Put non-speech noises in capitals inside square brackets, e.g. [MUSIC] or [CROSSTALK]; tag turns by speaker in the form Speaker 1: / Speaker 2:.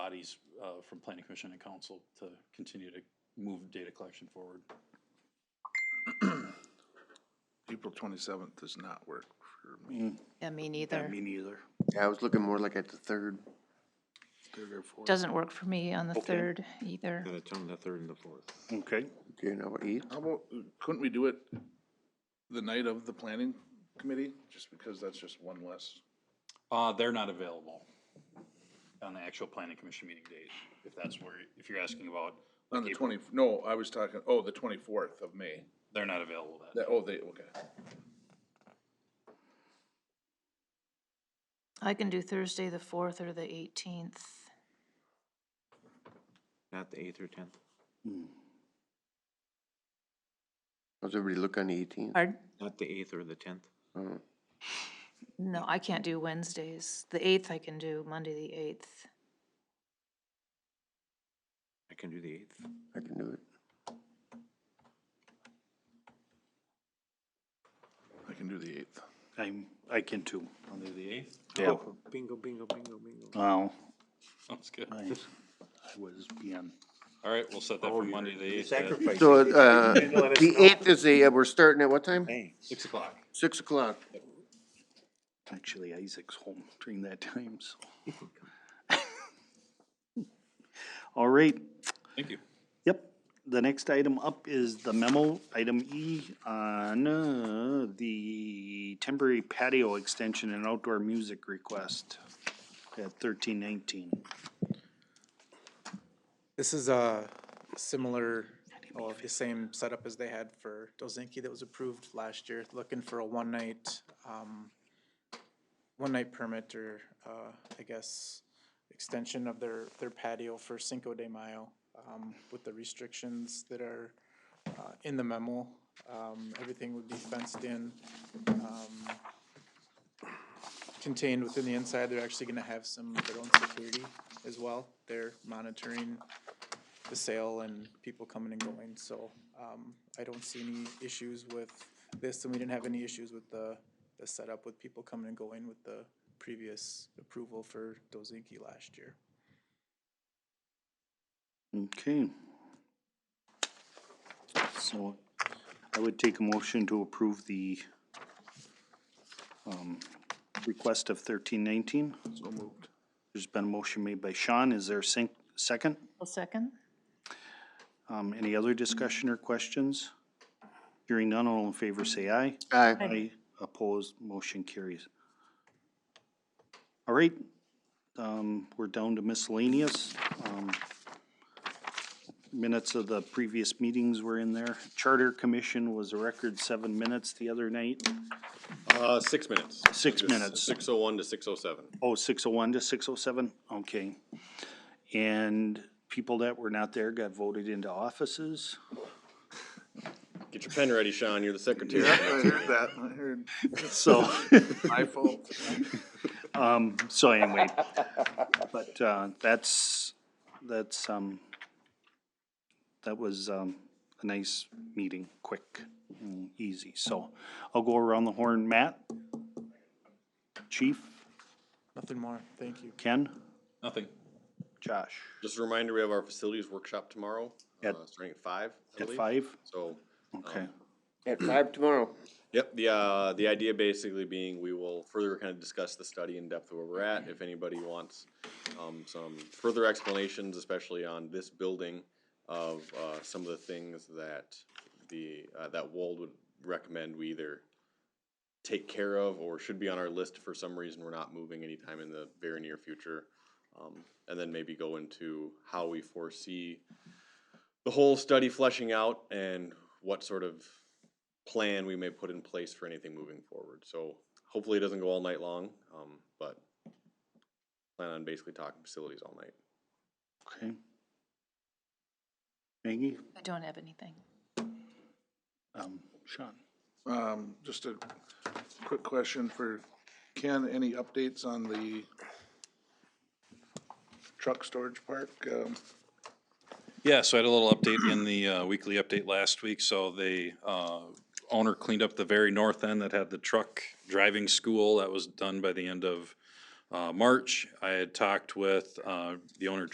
Speaker 1: bodies uh, from planning commission and council to continue to move data collection forward.
Speaker 2: April twenty-seventh does not work for me.
Speaker 3: Yeah, me neither.
Speaker 2: neither.
Speaker 4: Yeah, I was looking more like at the third.
Speaker 2: Third or fourth.
Speaker 3: Doesn't work for me on the third either.
Speaker 5: And it's on the third and the fourth.
Speaker 6: Okay,
Speaker 4: Okay, now what, eight?
Speaker 2: How about, couldn't we do it the night of the planning committee? Just because that's just one less.
Speaker 1: Uh, they're not available on the actual planning commission meeting date, if that's where, if you're asking about,
Speaker 2: On the twenty, no, I was talking, oh, the twenty-fourth of May.
Speaker 1: they're not available that.
Speaker 2: That, oh, they, okay.
Speaker 3: I can do Thursday, the fourth or the eighteenth.
Speaker 5: Not the eighth or tenth.
Speaker 4: How's everybody look on the eighteenth?
Speaker 3: Pardon?
Speaker 5: Not the eighth or the tenth.
Speaker 3: No, I can't do Wednesdays. The eighth I can do, Monday, the eighth.
Speaker 5: I can do the eighth.
Speaker 4: I can do it.
Speaker 2: I can do the eighth.
Speaker 6: I'm, I can too. Oh,
Speaker 1: Monday, the eighth?
Speaker 6: Yeah,
Speaker 5: Bingo, bingo, bingo, bingo.
Speaker 6: wow,
Speaker 1: Sounds good.
Speaker 6: I I was beyond.
Speaker 1: All right, we'll set that for Monday, the eighth at
Speaker 4: So, uh, the eighth is a, uh, we're starting at what time?
Speaker 1: six o'clock.
Speaker 4: Six o'clock.
Speaker 6: Actually, Isaac's home during that time, so. [LAUGHS] All right,
Speaker 1: Thank you.
Speaker 6: yep. The next item up is the memo, item E, on uh, the temporary patio extension and outdoor music request at thirteen nineteen.
Speaker 7: This is a similar, well, the same setup as they had for Dozinki that was approved last year, looking for a one-night, um, one-night permit or, uh, I guess, extension of their, their patio for Cinco de Mayo, um, with the restrictions that are, uh, in the memo. Um, everything would be fenced in, um, contained within the inside. They're actually gonna have some of their own security as well. They're monitoring the sale and people coming and going, so, um, I don't see any issues with this, and we didn't have any issues with the, the setup with people coming and going with the previous approval for Dozinki last year.
Speaker 6: Okay. So I would take a motion to approve the um, request of thirteen nineteen. So moved. There's been a motion made by Sean. Is there a sec- second?
Speaker 3: A second?
Speaker 6: Um, Any other discussion or questions? Hearing none, all in favor say aye.
Speaker 4: Aye.
Speaker 6: Aye. Opposed, motion carries. All right, um, we're down to miscellaneous. Um, Minutes of the previous meetings were in there. Charter Commission was a record seven minutes the other night.
Speaker 8: Uh, six minutes.
Speaker 6: Six minutes.
Speaker 8: Six oh one to six oh seven.
Speaker 6: Oh, six oh one to six oh seven, okay. And people that were not there got voted into offices.
Speaker 8: Get your pen ready, Sean, you're the secretary.
Speaker 2: heard that, I heard.
Speaker 6: So,
Speaker 2: My fault.
Speaker 6: so anyway, but, uh, that's, that's, um, that was, um, a nice meeting, quick and easy. So I'll go around the horn. Matt? Chief?
Speaker 7: Nothing more, thank you.
Speaker 6: Ken?
Speaker 1: Nothing.
Speaker 6: Josh?
Speaker 8: Just a reminder, we have our facilities workshop tomorrow, uh,
Speaker 6: At-
Speaker 8: starting at five. I
Speaker 6: At
Speaker 8: believe.
Speaker 6: five?
Speaker 8: So,
Speaker 6: Okay.
Speaker 4: At five tomorrow.
Speaker 8: yep, the, uh, the idea basically being we will further kind of discuss the study in depth where we're at. If anybody wants, um, some further explanations, especially on this building of, uh, some of the things that the, uh, that Wold would recommend we either take care of or should be on our list for some reason we're not moving anytime in the very near future. Um, and then maybe go into how we foresee the whole study fleshing out and what sort of plan we may put in place for anything moving forward. So hopefully it doesn't go all night long, um, but plan on basically talking facilities all night.
Speaker 6: Okay. Maggie?
Speaker 3: I don't have anything.
Speaker 6: Um, Sean?
Speaker 2: Um, just a quick question for Ken, any updates on the truck storage park? Um,
Speaker 1: Yeah, so I had a little update in the uh, weekly update last week. So the uh, owner cleaned up the very north end that had the truck driving school. That was done by the end of uh, March. I had talked with uh, the owner,